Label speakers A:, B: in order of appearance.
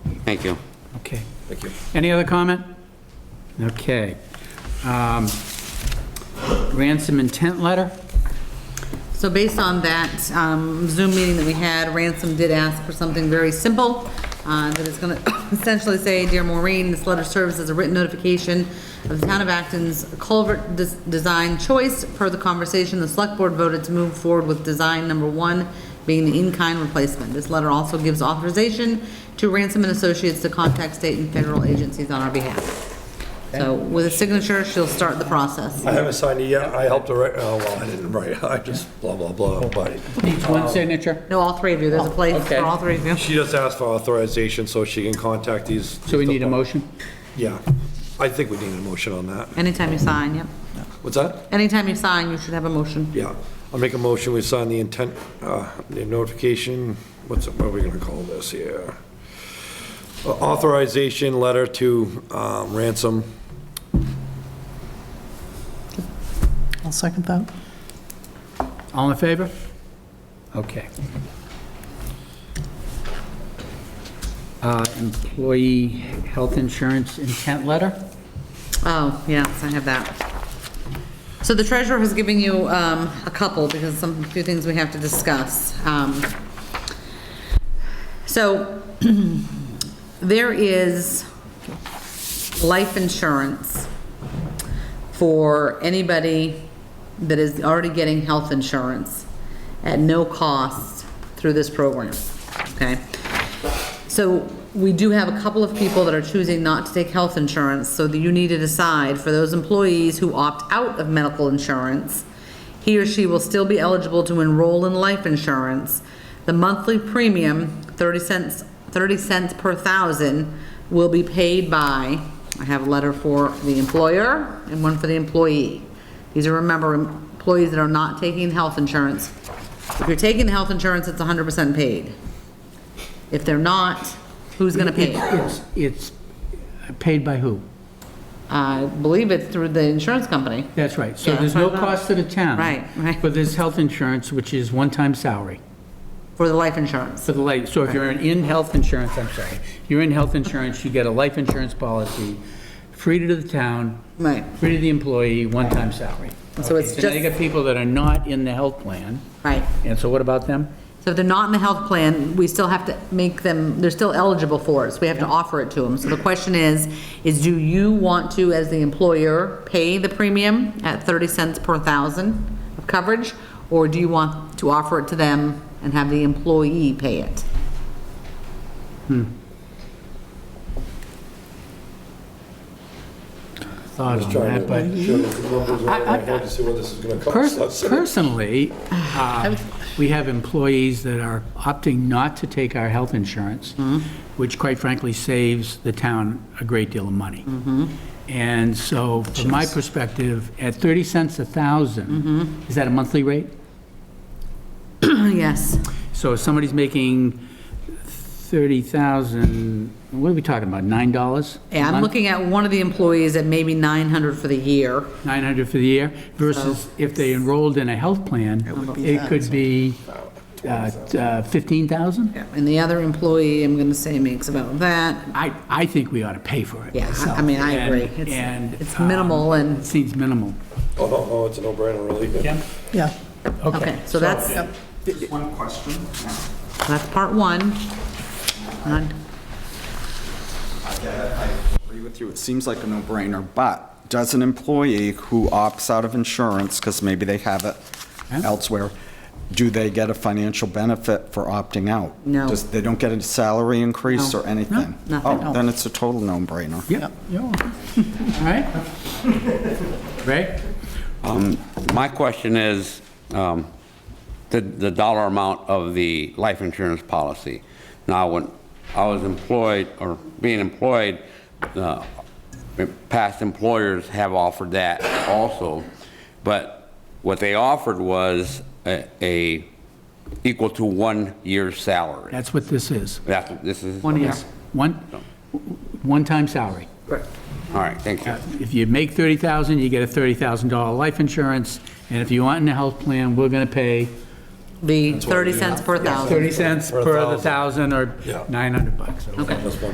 A: Thank you.
B: Okay.
C: Thank you.
B: Any other comment? Okay. Um, Ransom intent letter?
D: So based on that um, Zoom meeting that we had, Ransom did ask for something very simple, uh, that is going to essentially say, "Dear Maureen, this letter serves as a written notification of the Town of Acton's culvert des- design choice. Per the conversation, the Select Board voted to move forward with design number one being the in-kind replacement. This letter also gives authorization to Ransom and Associates to contact state and federal agencies on our behalf." So with a signature, she'll start the process.
C: I haven't signed it yet. I helped her, write- oh, well, I didn't write, I just blah, blah,
B: Oh.
C: blah, but
B: Each one
C: Oh.
B: signature?
D: No, all three of you, there's a place
B: Okay.
D: for all three of you.
C: she just asked for authorization so she can contact these.
B: So we need a motion?
C: Yeah, I think we need a motion on that.
D: Anytime you sign, yep.
C: What's that?
D: Anytime you sign, you should have a motion.
C: Yeah, I'll make a motion, we sign the intent, uh, the notification, what's, it- what are we gonna call this here? Uh, Authorization letter to um, ransom.
E: I'll second that.
B: All in favor? Okay. Uh, Employee health insurance intent letter?
D: Oh, yes, I have that. So the treasurer has given you um, a couple, because some, few things we have to discuss. Um, So there is life insurance for anybody that is already getting health insurance at no cost through this program, okay? So we do have a couple of people that are choosing not to take health insurance, so that you need to decide for those employees who opt out of medical insurance, he or she will still be eligible to enroll in life insurance. The monthly premium, 30 cents, 30 cents per thousand, will be paid by, I have a letter for the employer and one for the employee. These are, remember, employees that are not taking health insurance. If you're taking health insurance, it's 100% paid. If they're not, who's going to pay? it?
B: It's, it's paid by who?
D: I believe it's through the insurance company.
B: That's right. So
D: Yeah,
B: there's no
D: that's what I thought.
B: cost to the town.
D: Right, right.
B: But there's health insurance, which is one-time salary
D: For the life insurance.
B: for the life. So if you're in health insurance, I'm sorry, you're in health insurance, you get a life insurance policy, free to the town,
D: Right.
B: free to the employee, one-time salary.
D: So it's
B: Okay, now you
D: just-
B: got people that are not in the health plan.
D: Right.
B: And so what about them?
D: So if they're not in the health plan, we still have to make them, they're still eligible for it, so we have to offer it to them. So the question is, is do you want to, as the employer, pay the premium at 30 cents per thousand of coverage? Or do you want to offer it to them and have the employee pay it?
B: Thought on
C: Trying
B: that,
C: to-
B: but
C: Sure, the numbers are in my head to see what this is gonna cost us.
B: pers- personally, uh, we have employees that are opting not to take our health insurance,
D: Mm-hmm.
B: which quite frankly saves the town a great deal of money.
D: Mm-hmm.
B: And so from my perspective, at 30 cents a
D: Mm-hmm.
B: thousand, is that a monthly rate? Oh,
D: Yes.
B: So if somebody's making 30,000, what are we talking about, $9? a
D: Yeah, I'm
B: month?
D: looking at one of the employees at maybe 900 for the year.
B: 900 for the year versus if they enrolled in a health plan, it could be uh, t- uh, 15,000?
D: And the other employee, I'm gonna say makes about that,
B: I, I think we ought to pay for it.
D: Yeah, I- I
B: myself.
D: mean, I agree.
B: And-
D: It's-
B: And.
D: it's
B: um,
D: minimal and-
B: it Seems minimal.
C: Oh, no, no, it's a no-brainer, really.
E: Yeah.
D: Okay, so that's,
F: Just one question.
D: that's part one. Not-
F: Agree with you, it seems like a no-brainer, but does an employee who opts out of insurance, because maybe they have it elsewhere, do they get a financial benefit for opting out?
D: No.
F: Does- They don't get a salary increase or anything?
D: nothing.
F: Oh, then it's a total no-brainer.
B: Yep. yeah. All right? Right?
A: My question is, um, the the dollar amount of the life insurance policy. Now, when I was employed, or being employed, uh, past employers have offered that also, but what they offered was a- a, equal to one year's salary.
B: That's what this is.
A: That's, what this is.
B: One year,
A: okay.
B: one, one-time salary.
A: All right, thank you.
B: If you make 30,000, you get a $30,000 life insurance, and if you want in a health plan, we're going to pay
D: The 30 cents per thousand.
B: 30 cents
C: For a
B: per the thousand or
C: Yeah.
B: 900 bucks.
C: That's one.